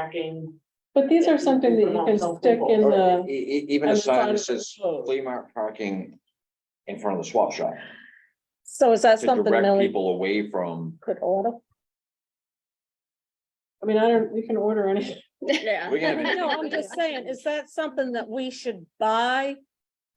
parking. But these are something that you can stick in Or the. e- e- even on a the side sign that of the says road. flea market parking in front of the swap shop. So is that To something direct Millie people away from, could order? I mean, I don't, you can order anything. Yeah. we're gonna No, be, I'm just saying, is that something that we should buy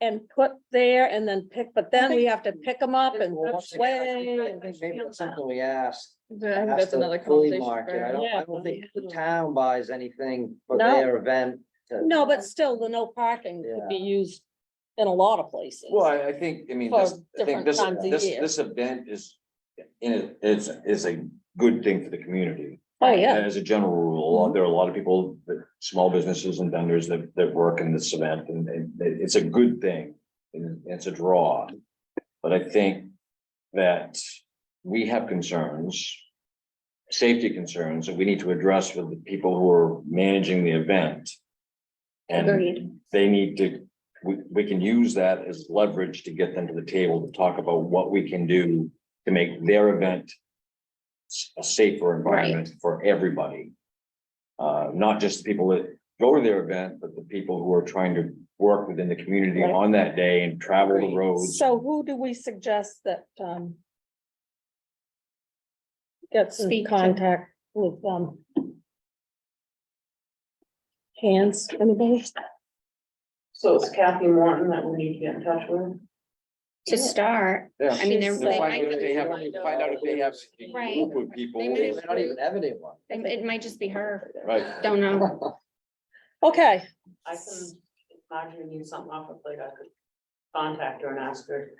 and put there and then pick, but then we have to pick them up and weigh? Something we asked. That's asked another the flea conversation. market. I for- don't, I Yeah. don't think the town buys anything for No. their event. to- No, but still, the no parking could be used in a lot of places. well, I, I think, I mean, For this, I think different this, times of this, year. this event is. In it, is, is a good thing for the community. Oh, yeah, And As a general rule, there are a lot of people, that small businesses and vendors that, that work in this event, and, and it- it's a good thing. And it's a draw. But I think that we have concerns. Safety concerns that we need to address with the people who are managing the event. Agreed. And they need to, we, we can use that as leverage to get them to the table to talk about what we can do to make their event s- a safer environment for everybody. Uh, not just the people that go to their event, but the people who are trying to work within the community Right. on that day and travel the Agreed. roads. so who do we suggest that, um, gets in Speak to- contact with, um, hands, anybody? So it's Kathy Morton that we need to get in touch with. To start, Yeah. I mean, they're. And like, Find I out if could- they have, find out if they have a Right. group of people. They might They have- may not even have anyone. It it might just be her, Right. don't know. Okay, I can, if Marjorie needs something off the plate, I could contact her and ask her.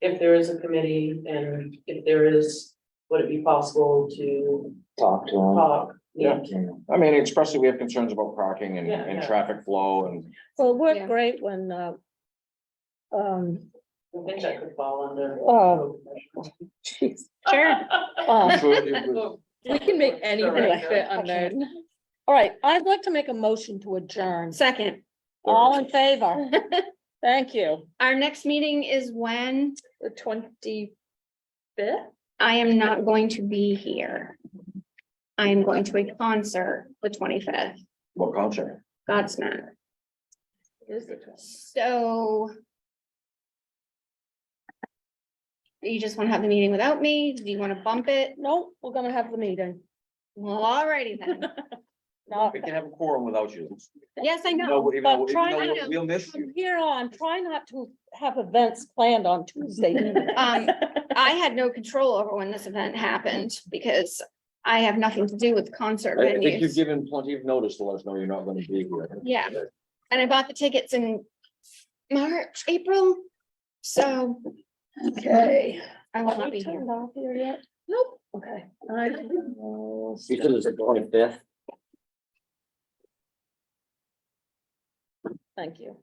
If there is a committee and if there is, would it be possible to Talk to them. talk? Yeah. I mean, especially we have concerns about parking and, Yeah, and yeah. traffic flow and, well, it Yeah. worked great when, uh, um, I think that could fall under. Oh. geez, Sure. uh, Oh. We can make anything Alright. fit under. all right, I'd like to make a motion to adjourn. Second, All in favor? Thank you. our next meeting is when The twenty. I am not going to be here. I am going to a concert the twenty-fifth, well, concert. Godsmack. So. You just want to have the meeting without me? Do you want to bump it? No, we're gonna have the meeting. Well, alrighty then. No, We can have a quorum without you. Yes, I know. No, even though, but even try- though I we'll- know. we'll miss you. From here on, try not to have events planned on Tuesday. evening. Um, I had no control over when this event happened because I have nothing to do with concert I, I think you've venues. given plenty of notice to let us know you're not gonna be here. Yeah. And I bought the tickets in March, April, so Okay. I will Have not we be here. turned off here yet? Nope. Okay. I- Because it's the twenty-fifth. Thank you.